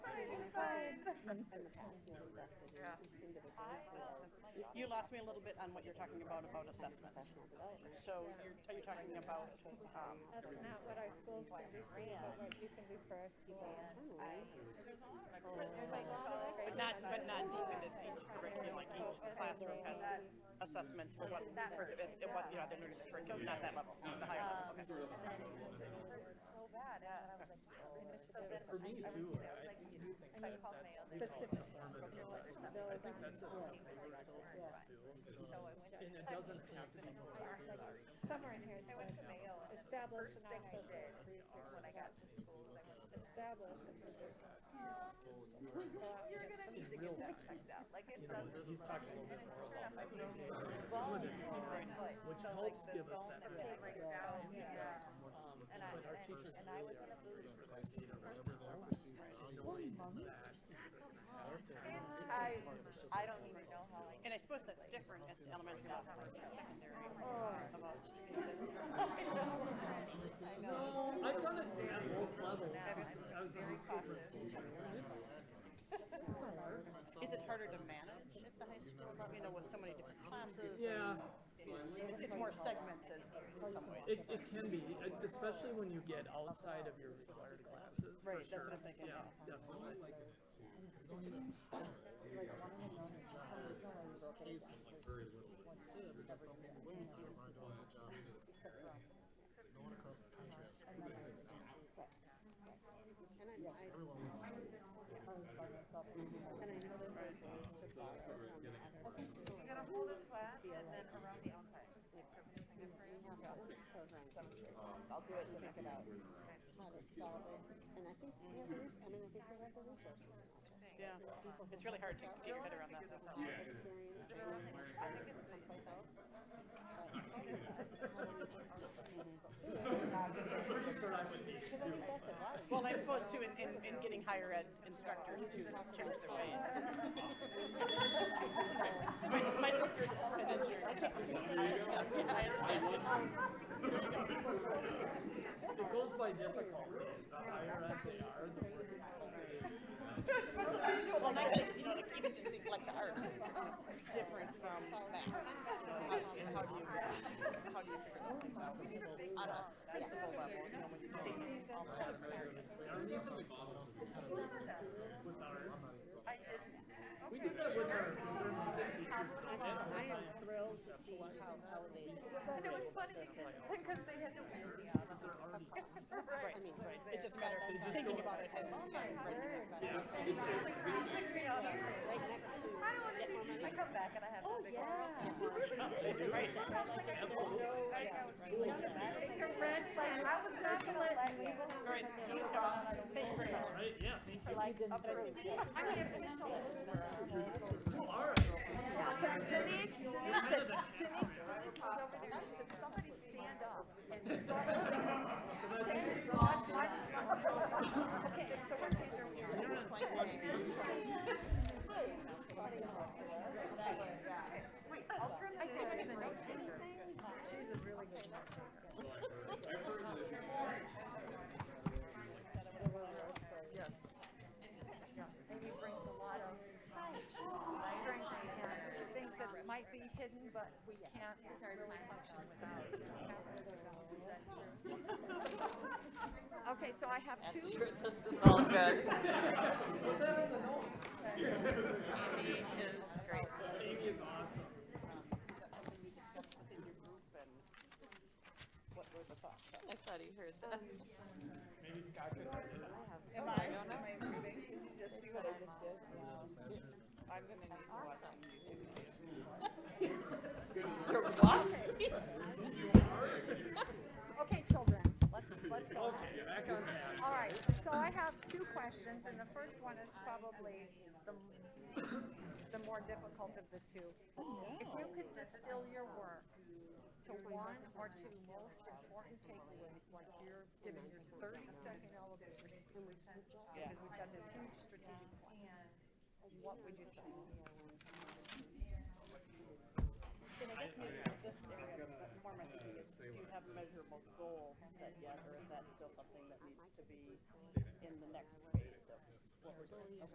in the past, we've invested in individuals who are You lost me a little bit on what you're talking about, about assessments. professional development. So you're, are you talking about, um, That's not what our schools can do, but what you can do for our schools. There's like but not, but not detailed in each curriculum, like each classroom has assessments for what, for, the- and what, you know, they're learning the curriculum, not that level, it's the higher level, okay. so bad, and I was like, so initiative. For me too, I I do think that that's, we call it performative assessments, I think that's a favorite goal still. And it doesn't have to be totally precise. Somewhere in here, it says, establish an office of research. When I got to school, I went to establish a position. In real time, you know, he's talking a little bit more about what we do, which helps give us that. measure. But our teachers really are hungry for that. you know, right? I, I don't even know how I. And I suppose that's different at the elementary level versus secondary. About, No, I've done it at both levels, 'cause I was on the school principal. and it's- is it harder to manage at the high school level, you know, with so many different classes? and Yeah. It's, it's more segmented in some ways. It, it can be, e- especially when you get outside of your required classes, for Right, that's what sure. I'm thinking, Yeah, yeah. definitely. And I, I. And I know those are ways to follow from other schools. Gonna hold it flat and then around the outside. We have other programs that I'll do it we think about how to solve it. And I think we have the res- I mean, I think we have the resources. Yeah, it's really hard to get your head around that. though. Experience. Someplace else. Well, I'm supposed to, in, in, in getting higher ed instructors to change their ways. My, s- my sister's an engineer. I understand. Yeah, I understand. It goes by difficulty, the higher up they are, the more difficult it is. Well, not like, you know, like even just think like the arts is different from math. You know, How do you, how do you figure those things out? On a principal level, you know, when you're dating all the different areas. Our needs and wants with ours. I didn't. We did that with our our music teachers. I just, I am thrilled to see how elevated. And it was funny because, because they had to wear the outfit. Right, right. It's just a matter of thinking about it and, Oh and writing it. Right next to. I don't wanna do, I come back and I have. Oh, They do. Absolutely. Your red, like, I was not gonna let you. All right, Dean Star, thank you very much. Right, yeah, thank you. I mean, if it's still. You are. Denise, Denise, said- Denise, Denise was over there, she said, somebody stand up and start moving. Thank God, my responsibility. Okay, so what page are we on? Wait, I'll turn this. I think I'm gonna note taker. She's a really good note taker. Yes. Yes, and he brings a lot of strengths and things that might be hidden, but we can't really function without. Okay, so I have two. This is all good. Amy is great. Amy is awesome. What were the thoughts? I thought he heard that. Maybe Scott could. Am I, am I moving? Did you just do what I just did? I'm gonna need to watch on YouTube. Your what? Okay, children, let's, let's go. now. Okay, back on that. All right, so I have two questions, and the first one is probably the, the more difficult of the two. If you could distill your work to one or two most important takeaways, like you're giving your thirty-second elevator speech, because we've done this huge strategic plan, what would you say? And I guess maybe with this area, but more my thinking is, do you have measurable goals set yet, or is that still something that needs to be in the next phase of what we're doing?